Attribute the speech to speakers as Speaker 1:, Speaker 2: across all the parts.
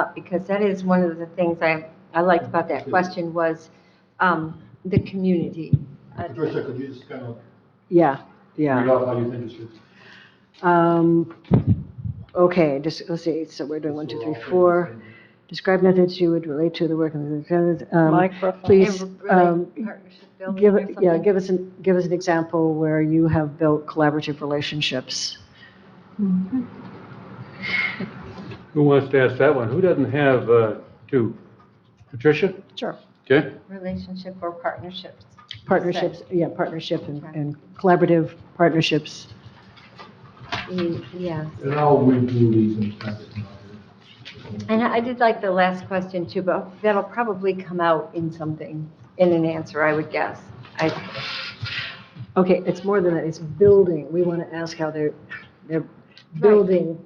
Speaker 1: up, because that is one of the things I, I liked about that question was, um, the community. Uh,
Speaker 2: Patricia, could you just kind of
Speaker 3: Yeah,
Speaker 2: read
Speaker 3: yeah.
Speaker 2: off how you think it should?
Speaker 3: Um, Okay, just, let's see, so we're doing one, two, three, four. Describe methods you would relate to the work of the, um, please,
Speaker 1: and relate
Speaker 3: um,
Speaker 1: partnership building
Speaker 3: give,
Speaker 1: or
Speaker 3: it- yeah,
Speaker 1: something.
Speaker 3: give us, an give us an example where you have built collaborative relationships.
Speaker 4: Who wants to ask that one? Who doesn't have uh, two? Patricia?
Speaker 3: Sure.
Speaker 4: Okay.
Speaker 1: Relationship or partnerships.
Speaker 3: Partnerships, yeah, partnership and and collaborative partnerships.
Speaker 1: Mm, Yeah.
Speaker 2: And I'll redo these and kind of.
Speaker 1: And I did like the last question too, but that'll probably come out in something, in an answer, I would guess. I,
Speaker 3: Okay, it's more than that, it's building. We want to ask how they're, they're building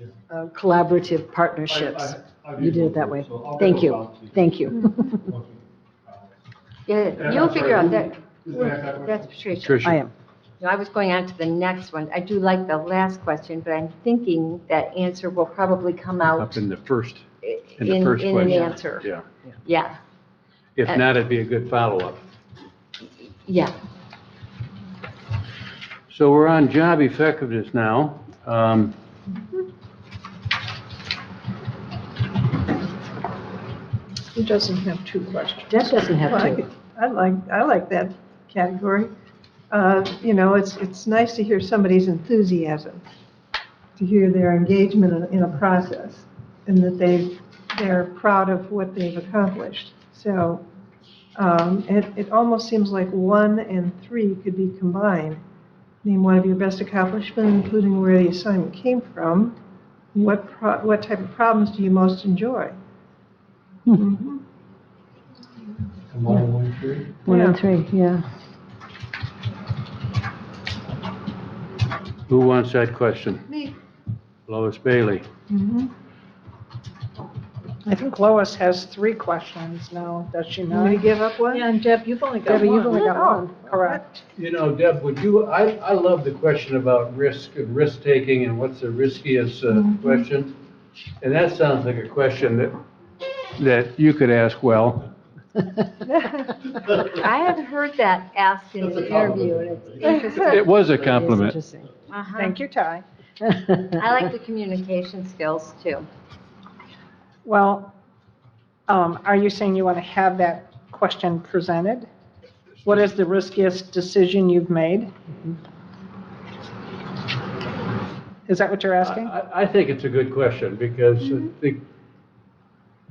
Speaker 2: Yeah.
Speaker 3: uh, collaborative partnerships.
Speaker 2: I- I- I've
Speaker 3: You did
Speaker 2: used
Speaker 3: it that way.
Speaker 2: so I'll get
Speaker 3: Thank
Speaker 2: those
Speaker 3: you,
Speaker 2: out to
Speaker 3: thank you.
Speaker 2: once we- And
Speaker 1: yeah,
Speaker 2: I'm
Speaker 1: you'll
Speaker 2: sorry,
Speaker 1: figure out
Speaker 2: who-
Speaker 1: that,
Speaker 2: who's gonna ask that question?
Speaker 1: that's Patricia.
Speaker 4: Patricia?
Speaker 3: I am.
Speaker 1: No, I was going on to the next one. I do like the last question, but I'm thinking that answer will probably come out
Speaker 4: Up in the first,
Speaker 1: i-
Speaker 4: in the
Speaker 1: in,
Speaker 4: first
Speaker 1: in an
Speaker 4: question.
Speaker 1: answer.
Speaker 4: Yeah.
Speaker 1: Yeah, Uh,
Speaker 4: If not, it'd be a good follow-up.
Speaker 1: yeah.
Speaker 4: So we're on job effectiveness now. Um,
Speaker 5: Who doesn't have two questions?
Speaker 3: Deb doesn't have
Speaker 5: Well,
Speaker 3: to.
Speaker 5: I I like, I like that category. Uh, You know, it's, it's nice to hear somebody's enthusiasm, to hear their engagement in- in a process, and that they, they're proud of what they've accomplished. So um, it, it almost seems like one and three could be combined. Name one of your best accomplishments, including where the assignment came from. What, pro- what type of problems do you most enjoy?
Speaker 3: Hmm.
Speaker 5: Mhm.
Speaker 2: Come on, one, three.
Speaker 3: One and
Speaker 5: Yeah.
Speaker 3: three, yeah.
Speaker 4: Who wants that question?
Speaker 5: Me.
Speaker 4: Lois Bailey.
Speaker 5: Mhm.
Speaker 6: Mm-hmm. I think Lois has three questions now, does she
Speaker 5: You want me
Speaker 6: not?
Speaker 5: to give up one?
Speaker 6: Yeah, and Deb, you've only got
Speaker 3: Debbie,
Speaker 6: one.
Speaker 3: you've only got
Speaker 5: Oh.
Speaker 3: one.
Speaker 6: Correct.
Speaker 4: You know, Deb, would you, I, I love the question about risk and risk-taking and what's the riskiest uh,
Speaker 1: Mm-hmm.
Speaker 4: question. And that sounds like a question that, that you could ask well.
Speaker 1: I have heard that asked in
Speaker 2: That's
Speaker 1: an
Speaker 2: a compliment.
Speaker 1: interview and it's interesting.
Speaker 4: It was a
Speaker 3: It's
Speaker 4: compliment.
Speaker 3: interesting.
Speaker 1: Uh-huh.
Speaker 6: Thank you, Ty.
Speaker 1: I like the communication skills too.
Speaker 6: Well, um, are you saying you want to have that question presented? What is the riskiest decision you've made?
Speaker 5: Mm-hmm.
Speaker 6: Is that what you're
Speaker 4: I-
Speaker 5: Uh,
Speaker 6: asking?
Speaker 4: I, I think it's a good question because I
Speaker 1: Mm-hmm.
Speaker 4: think,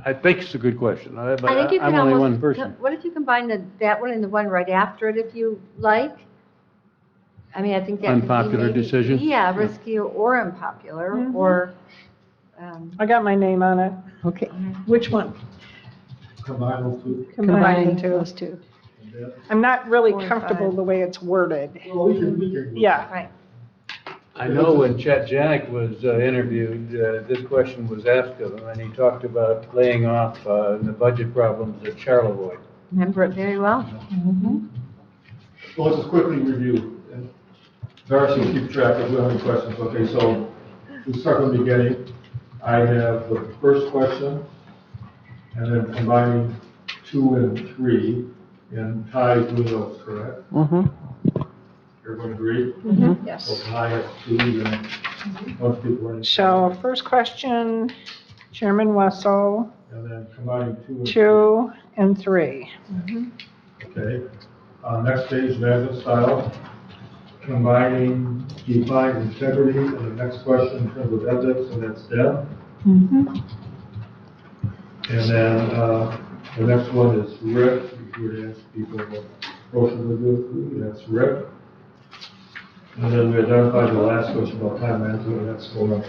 Speaker 4: I think it's a good question. I-
Speaker 1: I think you
Speaker 4: But
Speaker 1: can
Speaker 4: I'm only one
Speaker 1: almost,
Speaker 4: person.
Speaker 1: what if you combine the, that one and the one right after it if you like? I mean, I think that. could be
Speaker 4: Unpopular
Speaker 1: maybe-
Speaker 4: decision?
Speaker 1: Yeah, risky or unpopular or, um,
Speaker 6: I got my name on it.
Speaker 3: Okay,
Speaker 6: Which one?
Speaker 2: Combine those two.
Speaker 6: Combine the two.
Speaker 3: those two.
Speaker 2: and that-
Speaker 6: I'm not really
Speaker 5: Four and
Speaker 6: comfortable
Speaker 5: five.
Speaker 6: the way it's worded.
Speaker 2: Well, we can, we can.
Speaker 6: Yeah,
Speaker 1: right.
Speaker 4: I know when Chet Janik was uh, interviewed, uh, this question was asked of him, and he talked about laying off uh, the budget problems at Charlevoix.
Speaker 1: Remember it very well.
Speaker 2: Well, let's just quickly review. and Darcy, will keep track if we have any questions. Okay, so we start from the beginning. I have the first question, and then combining two and three, and Ty's doing those, correct? Everyone agree? So
Speaker 6: yes.
Speaker 2: Ty has two, and most people are in.
Speaker 6: So first question, Chairman Wessel,
Speaker 2: And then combining two and.
Speaker 6: two and three.
Speaker 2: Okay, uh, next page, management style, combining defined integrity, and the next question in terms of ethics, and that's Deb. And then, uh, the next one is Rick, if you were to ask people what motion would do, that's Rick. And then we identified the last question about time management, and that's Laura.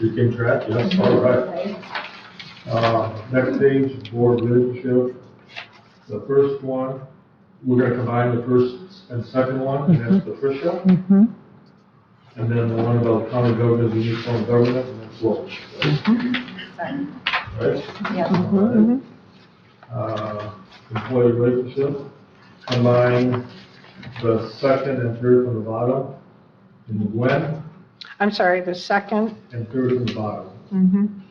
Speaker 2: You can track, yes, all right. Uh, next page, board leadership, the first one, we're gonna combine the first and second one, and that's Patricia. And then the one about county government, and uniform government, and that's Lois. Right? Yeah. Uh, employee relationship, combine the second and third from the bottom, and Gwen,
Speaker 6: I'm sorry, the second,
Speaker 2: and third from the bottom.
Speaker 6: mhm,